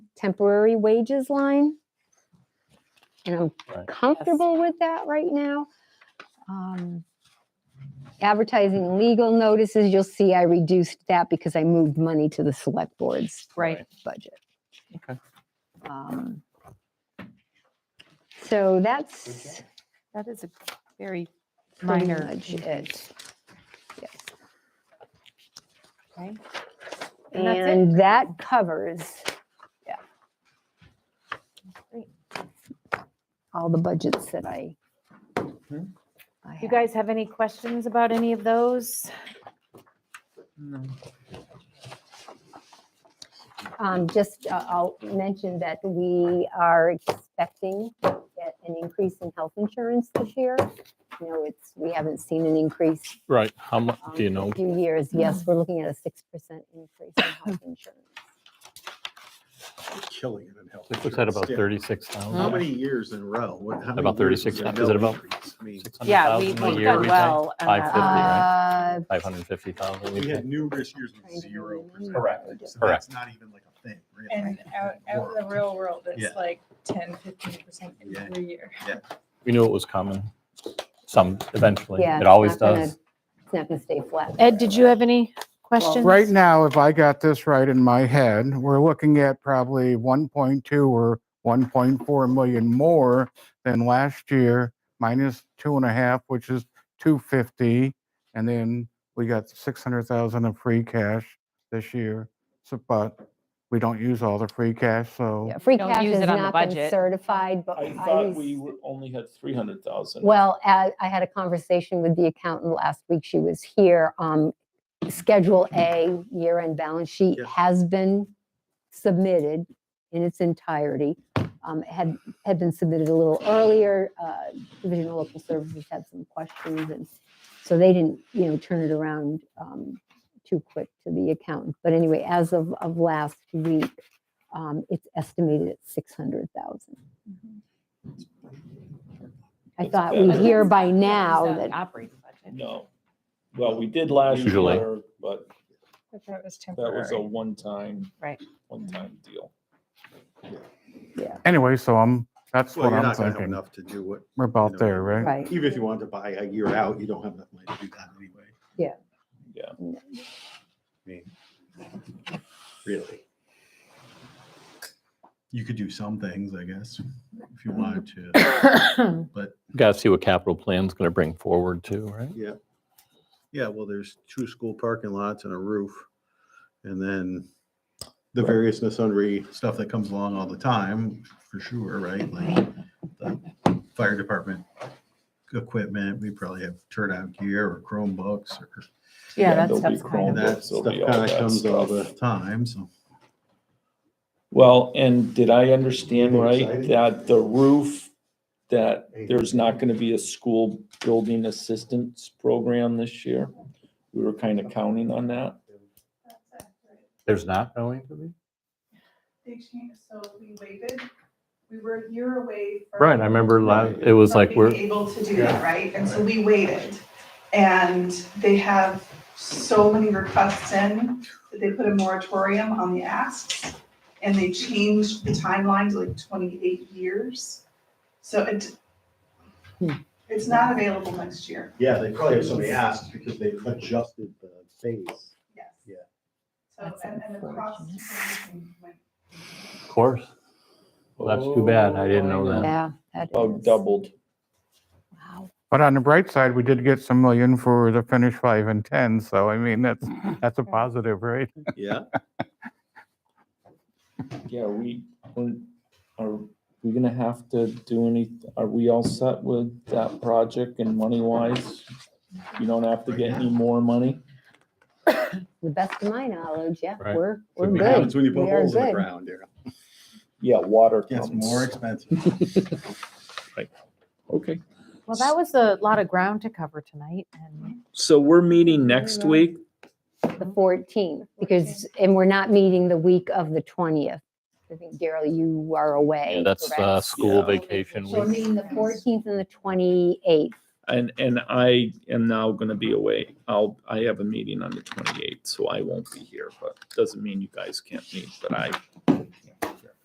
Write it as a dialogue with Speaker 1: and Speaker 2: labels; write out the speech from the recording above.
Speaker 1: temporary wages line. And I'm
Speaker 2: Right.
Speaker 1: comfortable with that right now. Um, Advertising and legal notices, you'll see I reduced that because I moved money to the select board's
Speaker 2: Right.
Speaker 1: budget.
Speaker 2: Okay.
Speaker 1: Um, So
Speaker 2: Good
Speaker 1: that's
Speaker 3: That is a very
Speaker 1: pretty
Speaker 3: minor.
Speaker 1: much it. Yes.
Speaker 3: Okay. And that's it?
Speaker 1: And that covers, yeah.
Speaker 3: Great.
Speaker 1: All the budgets that I.
Speaker 2: Hmm?
Speaker 1: I
Speaker 3: You
Speaker 1: have.
Speaker 3: guys have any questions about any of those?
Speaker 1: Um, just, uh, I'll mention that we are expecting that an increase in health insurance this year. You know, it's, we haven't seen an increase.
Speaker 2: Right, how much,
Speaker 1: um,
Speaker 2: do you
Speaker 1: in a
Speaker 2: know?
Speaker 1: Few years,
Speaker 3: Hmm.
Speaker 1: yes, we're looking at a six percent increase in health insurance.
Speaker 4: killing it in health.
Speaker 2: It looks at
Speaker 4: insurance.
Speaker 2: about
Speaker 4: Yeah.
Speaker 2: thirty-six
Speaker 4: How
Speaker 2: thousand.
Speaker 4: many years in a row? What- how many
Speaker 2: About
Speaker 4: years
Speaker 2: 36
Speaker 4: was there
Speaker 2: is it
Speaker 4: no
Speaker 2: about-
Speaker 4: increase? I mean,
Speaker 2: a
Speaker 3: Yeah, we- we've
Speaker 2: year,
Speaker 3: done
Speaker 2: we think,
Speaker 3: well. on that.
Speaker 2: 550, right?
Speaker 1: Uh,
Speaker 2: Five hundred and fifty thousand,
Speaker 4: we
Speaker 2: we
Speaker 4: had
Speaker 2: think.
Speaker 4: numerous years with
Speaker 1: Trying to
Speaker 4: zero percent.
Speaker 1: remember. Correct.
Speaker 2: Correct.
Speaker 4: That's not even like a thing. really.
Speaker 5: And out, out in the real world,
Speaker 4: Yeah.
Speaker 5: it's like 10, 15%
Speaker 4: Yeah.
Speaker 5: every year.
Speaker 2: We knew it was coming, some, eventually,
Speaker 1: Yeah.
Speaker 2: it
Speaker 1: it's
Speaker 2: always
Speaker 1: not gonna-
Speaker 2: does.
Speaker 1: It's not gonna stay flat.
Speaker 3: Ed, did you have any questions?
Speaker 6: Right now, if I got this right in my head, we're looking at probably 1.2 or 1.4 million more than last year, minus two and a half, which is 250. And then we got 600,000 of free cash this year. So, but we don't use all the free cash, so
Speaker 1: Yeah, Free
Speaker 3: Don't
Speaker 1: cash
Speaker 3: use
Speaker 1: has
Speaker 3: it on the
Speaker 1: not been
Speaker 3: budget.
Speaker 1: certified, but
Speaker 7: I
Speaker 1: I
Speaker 7: thought we
Speaker 1: was,
Speaker 7: were- only had three hundred thousand.
Speaker 1: well, I I had a conversation with the accountant last week. She was here. Um, Schedule A year-end balance sheet
Speaker 4: Yeah.
Speaker 1: has been submitted in its entirety. Um, it had, had been submitted a little earlier. Uh, Division of Local Services had some questions and so they didn't, you know, turn it around, um, too quick to the accountant. But anyway, as of, of last week, um, it's estimated at six hundred thousand. I
Speaker 7: That's
Speaker 1: thought
Speaker 7: bad.
Speaker 1: we'd hear
Speaker 5: That's
Speaker 1: by
Speaker 5: not- that was
Speaker 1: now
Speaker 5: not
Speaker 1: that,
Speaker 3: Operating budget.
Speaker 7: No. Well, we did last
Speaker 2: Usually.
Speaker 7: year, but
Speaker 5: But that was
Speaker 7: that was a
Speaker 5: temporary.
Speaker 7: one-time.
Speaker 3: Right.
Speaker 7: One-time deal.
Speaker 6: anyway, so I'm, that's
Speaker 4: Well,
Speaker 6: what
Speaker 4: you're
Speaker 6: I'm
Speaker 4: not gonna have
Speaker 6: thinking.
Speaker 4: enough to do what,
Speaker 6: We're
Speaker 4: know,
Speaker 6: about there, right?
Speaker 1: right,
Speaker 4: even if you wanted to buy a year out, you don't have enough money to do that anyway.
Speaker 1: Yeah.
Speaker 7: Yeah.
Speaker 4: I mean, Really. You could do some things, I guess, if you wanted to.
Speaker 2: Got to see what capital plan's going to bring forward too, right?
Speaker 4: Yeah. Yeah, well, there's two school parking lots and a roof. And then the various and sundry stuff that comes along all the time, for sure, right? Like the fire department equipment, we probably have turnout gear or Chromebooks or
Speaker 3: Yeah, that
Speaker 7: there'll be
Speaker 3: stuff's kind
Speaker 4: and
Speaker 3: of,
Speaker 4: that
Speaker 7: Chromebooks,
Speaker 4: stuff
Speaker 7: there'll be
Speaker 4: kind
Speaker 7: all
Speaker 4: of
Speaker 7: that
Speaker 4: comes all the
Speaker 7: stuff.
Speaker 4: time, so.
Speaker 7: Well, and did I understand
Speaker 4: You're
Speaker 7: right
Speaker 4: excited?
Speaker 7: that the roof, that
Speaker 4: Hey.
Speaker 7: there's not gonna be a school building assistance program this year? We were kind of counting on that.
Speaker 2: There's not going to be?
Speaker 8: They changed, so we waited, we were a year away. from-
Speaker 2: Right, I remember last, it was like,
Speaker 8: from
Speaker 2: we're,
Speaker 8: Being able to do that, right? And so we waited. And they have so many requests in that they put a moratorium on the asks. And they changed the timeline to like twenty-eight years. So it, it's not available next year,
Speaker 4: Yeah, they probably have somebody asked because they adjusted the phase.
Speaker 8: yes.
Speaker 4: Yeah.
Speaker 8: So,
Speaker 3: That's
Speaker 8: and, and the cost. went
Speaker 2: of course, Well, that's too bad. I didn't know that.
Speaker 1: yeah. that
Speaker 7: About
Speaker 1: is-
Speaker 4: Oh,
Speaker 7: Oh, doubled.
Speaker 1: wow.
Speaker 6: But on the bright side, we did get some million for the finish five and 10, so I mean, that's, that's a positive, right?
Speaker 4: Yeah.
Speaker 7: Yeah, we, when- are we gonna have to do any, are we all set with that project and money wise? You don't have to get any more money?
Speaker 1: To The best of my knowledge, yeah,
Speaker 2: Right.
Speaker 1: we're, we're
Speaker 2: we
Speaker 4: What happens
Speaker 1: good.
Speaker 4: when you put
Speaker 1: We are
Speaker 4: holes in the
Speaker 1: good.
Speaker 4: ground, Daryl?
Speaker 7: Yeah, water
Speaker 4: Gets
Speaker 7: comes.
Speaker 4: more expensive.
Speaker 7: Okay,
Speaker 3: well, that was a lot of ground to cover tonight and
Speaker 7: so we're meeting next week.
Speaker 1: The 14th, because, and we're not meeting the week of the 20th. I think, Daryl, you are away.
Speaker 2: Yeah, that's uh,
Speaker 1: correct?
Speaker 2: school
Speaker 7: Yeah.
Speaker 2: vacation
Speaker 1: So we're
Speaker 2: week.
Speaker 1: meeting the 14th and the 28th.
Speaker 7: And, and I am now gonna be away. I'll, I have a meeting on the twenty-eighth, so I won't be here, but doesn't mean you guys can't meet, but I